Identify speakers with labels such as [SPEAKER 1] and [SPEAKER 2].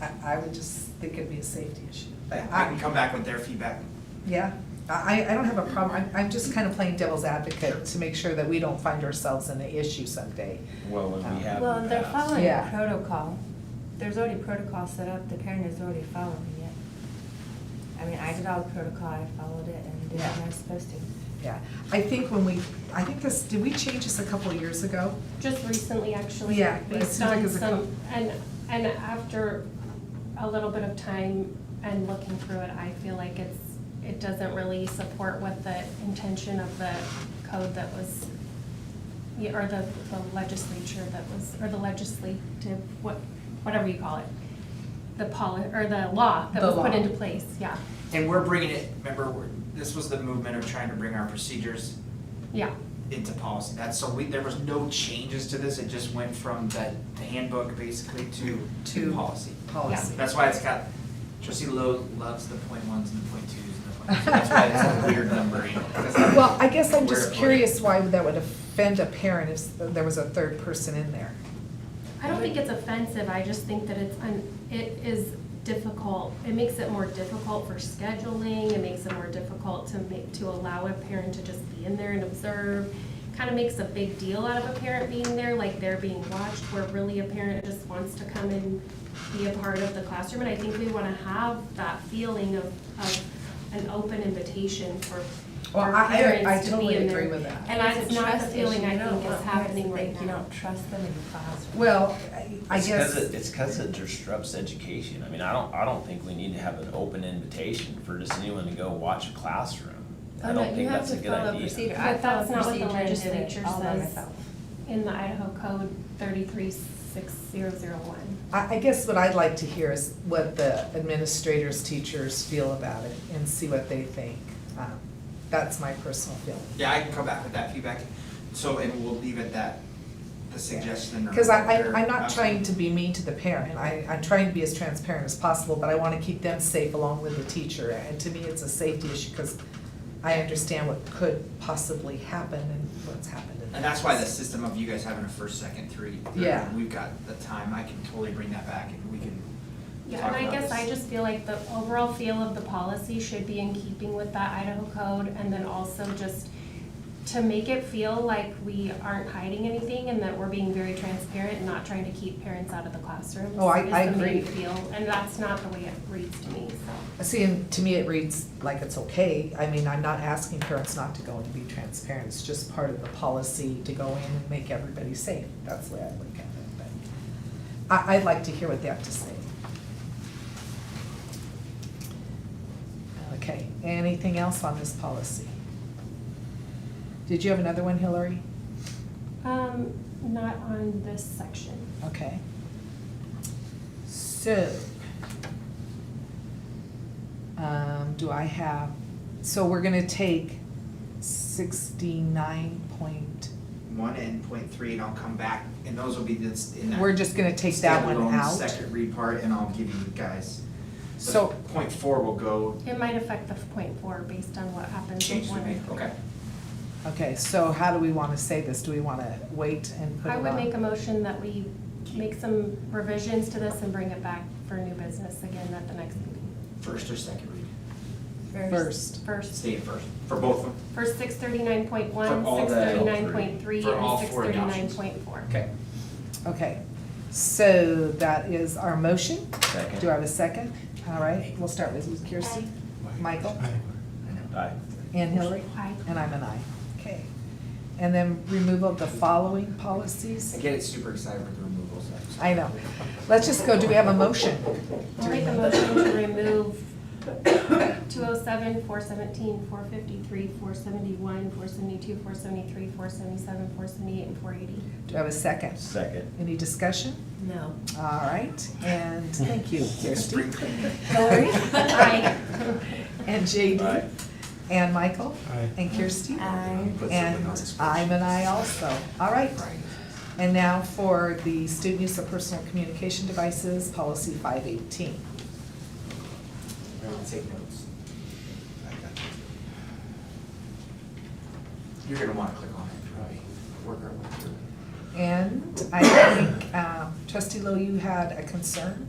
[SPEAKER 1] I, I would just think it'd be a safety issue.
[SPEAKER 2] I I
[SPEAKER 1] I-
[SPEAKER 2] can come back with their feedback.
[SPEAKER 1] Yeah, I, I don't have a problem, I'm, I'm just kind of playing devil's advocate to make sure that we don't find ourselves in an issue someday. Um,
[SPEAKER 3] Well, and we have
[SPEAKER 4] Well,
[SPEAKER 3] in the
[SPEAKER 4] they're
[SPEAKER 3] past.
[SPEAKER 4] following
[SPEAKER 1] Yeah.
[SPEAKER 4] protocol. There's already protocol set up, the parent is already following it. I mean, I did all the protocol, I followed it and did what I was supposed to.
[SPEAKER 1] Yeah, I think when we, I think this, did we change this a couple of years ago?
[SPEAKER 5] just recently, actually.
[SPEAKER 1] Yeah, it
[SPEAKER 5] Based
[SPEAKER 1] seems like
[SPEAKER 5] on
[SPEAKER 1] it's a cou-
[SPEAKER 5] some, and, and after a little bit of time and looking through it, I feel like it's, it doesn't really support what the intention of the code that was, yeah, or the the legislature that was, or the legislative, what, whatever you call it, the poli, or the law that
[SPEAKER 1] The
[SPEAKER 5] was put
[SPEAKER 1] law.
[SPEAKER 5] into place, yeah,
[SPEAKER 2] And we're bringing it, remember, we're- this was the movement of trying to bring our procedures
[SPEAKER 5] yeah.
[SPEAKER 2] into policy. That's, so we, there was no changes to this, it just went from the the handbook basically to, to
[SPEAKER 1] To-
[SPEAKER 2] policy.
[SPEAKER 1] Policy.
[SPEAKER 2] That's why it's got, trustee Lowe loves the point ones and the point twos and the point, so that's why it's a weird numbering.
[SPEAKER 1] Well, I guess I'm
[SPEAKER 2] Where it
[SPEAKER 1] just
[SPEAKER 2] put it.
[SPEAKER 1] curious why that would offend a parent if there was a third person in there.
[SPEAKER 5] I don't think it's offensive, I just think that it's, un- it is difficult, it makes it more difficult for scheduling, it makes it more difficult to make, to allow a parent to just be in there and observe. Kind of makes a big deal out of a parent being there, like they're being watched, where really a parent just wants to come and be a part of the classroom. And I think we want to have that feeling of, of an open invitation for
[SPEAKER 1] Well,
[SPEAKER 5] for
[SPEAKER 1] I- I- I
[SPEAKER 5] parents to be
[SPEAKER 1] totally
[SPEAKER 5] in there.
[SPEAKER 1] agree with that.
[SPEAKER 5] And
[SPEAKER 4] It's
[SPEAKER 5] that's
[SPEAKER 4] a
[SPEAKER 5] not the
[SPEAKER 4] trust
[SPEAKER 5] feeling
[SPEAKER 4] issue.
[SPEAKER 5] I
[SPEAKER 4] You don't
[SPEAKER 5] think
[SPEAKER 4] want
[SPEAKER 5] is
[SPEAKER 4] parents to
[SPEAKER 5] happening
[SPEAKER 4] think
[SPEAKER 5] right now.
[SPEAKER 4] You don't trust them in the classroom.
[SPEAKER 1] Well, I- I
[SPEAKER 3] It's 'cause it-
[SPEAKER 1] guess,
[SPEAKER 3] It's because it disrupts education. I mean, I don't, I don't think we need to have an open invitation for just anyone to go watch a classroom. I
[SPEAKER 4] Oh, no,
[SPEAKER 3] don't think that's a good
[SPEAKER 4] You have to follow
[SPEAKER 3] idea.
[SPEAKER 4] procedure.
[SPEAKER 5] But
[SPEAKER 4] I
[SPEAKER 5] that's
[SPEAKER 4] followed
[SPEAKER 5] not what the
[SPEAKER 4] procedure and did it
[SPEAKER 5] legislature
[SPEAKER 4] all by
[SPEAKER 5] says.
[SPEAKER 4] myself.
[SPEAKER 5] in the Idaho Code thirty-three six zero zero one.
[SPEAKER 1] I, I guess what I'd like to hear is what the administrators, teachers feel about it and see what they think. Um, That's my personal feeling.
[SPEAKER 2] Yeah, I can come back with that feedback, so, and we'll leave it that, the suggestion. or
[SPEAKER 1] Because I,
[SPEAKER 2] whatever.
[SPEAKER 1] I, I'm not trying to be mean to the parent, I, I'm trying to be as transparent as possible, but I wanna keep them safe along with the teacher, and to me, it's a safety issue, because I understand what could possibly happen and what's happened in the
[SPEAKER 2] And that's why the
[SPEAKER 1] past.
[SPEAKER 2] system of you guys having a first, second, three, third,
[SPEAKER 1] Yeah.
[SPEAKER 2] and we've got the time, I can totally bring that back and we can
[SPEAKER 5] Yeah,
[SPEAKER 2] talk
[SPEAKER 5] and I
[SPEAKER 2] about
[SPEAKER 5] guess I
[SPEAKER 2] this.
[SPEAKER 5] just feel like the overall feel of the policy should be in keeping with that Idaho code and then also just to make it feel like we aren't hiding anything and that we're being very transparent and not trying to keep parents out of the classroom.
[SPEAKER 1] Oh, I-
[SPEAKER 5] is
[SPEAKER 1] I
[SPEAKER 5] the main
[SPEAKER 1] agree.
[SPEAKER 5] Feel, and that's not the way it reads to me, so.
[SPEAKER 1] See, and to me, it reads like it's okay, I mean, I'm not asking parents not to go and be transparent, it's just part of the policy to go in and make everybody safe, that's the way I look at it, but I, I'd like to hear what they have to say. Okay, anything else on this policy? Did you have another one, Hillary?
[SPEAKER 5] Um, not on this section.
[SPEAKER 1] Okay. So, um, do I have, so we're gonna take sixty-nine point,
[SPEAKER 2] One and point three, and I'll come back, and those will be this, in that.
[SPEAKER 1] we're just gonna take that one
[SPEAKER 2] standalone
[SPEAKER 1] out?
[SPEAKER 2] Second read part, and I'll give you guys. the
[SPEAKER 1] So-
[SPEAKER 2] Point four will go,
[SPEAKER 5] It might affect the point four based on what happens with
[SPEAKER 2] changes we
[SPEAKER 5] one.
[SPEAKER 2] make, okay.
[SPEAKER 1] Okay, so how do we wanna say this? Do we wanna wait and put it
[SPEAKER 5] I
[SPEAKER 1] on?
[SPEAKER 5] would make a motion that we
[SPEAKER 2] Keep-
[SPEAKER 5] make some revisions to this and bring it back for new business again at the next meeting.
[SPEAKER 2] First or second read,
[SPEAKER 1] First,
[SPEAKER 5] First,
[SPEAKER 2] stay first, for both of them.
[SPEAKER 5] for six thirty-nine point one,
[SPEAKER 2] For all
[SPEAKER 5] six
[SPEAKER 2] the-
[SPEAKER 5] thirty-nine point three,
[SPEAKER 2] For all
[SPEAKER 5] and six
[SPEAKER 2] four
[SPEAKER 5] thirty-nine
[SPEAKER 2] adoptions.
[SPEAKER 5] point four.
[SPEAKER 2] Okay.
[SPEAKER 1] okay. So that is our motion.
[SPEAKER 3] Second.
[SPEAKER 1] Do I have a second? All right, we'll start with Kirsty, Michael,
[SPEAKER 3] Aye.
[SPEAKER 1] and Hillary.
[SPEAKER 5] Aye.
[SPEAKER 1] And I'm an aye. Okay. And then removal of the following
[SPEAKER 2] I
[SPEAKER 1] policies?
[SPEAKER 2] get it super excited with the removals, I'm sorry.
[SPEAKER 1] I know. Let's just go, do we have a motion?
[SPEAKER 5] I'll make a motion to remove two oh seven, four seventeen, four fifty-three, four seventy-one, four seventy-two, four seventy-three, four seventy-seven, four seventy-eight, and four eighty.
[SPEAKER 1] Do I have a second?
[SPEAKER 3] Second.
[SPEAKER 1] Any discussion?
[SPEAKER 4] No.
[SPEAKER 1] All right, and thank you, Kirsty.
[SPEAKER 2] Spring cleaning.
[SPEAKER 1] Hillary?
[SPEAKER 5] Aye.
[SPEAKER 1] And
[SPEAKER 3] Aye.
[SPEAKER 1] JD? And Michael? And Kirsty?
[SPEAKER 4] I,
[SPEAKER 1] And I'm an aye also. All right. And now for the student use of personal communication devices, policy five eighteen.
[SPEAKER 2] Everyone take notes. I got you. You're gonna wanna click on it, probably, work our way through it.
[SPEAKER 1] And I think, um, trustee Lowe, you had a concern?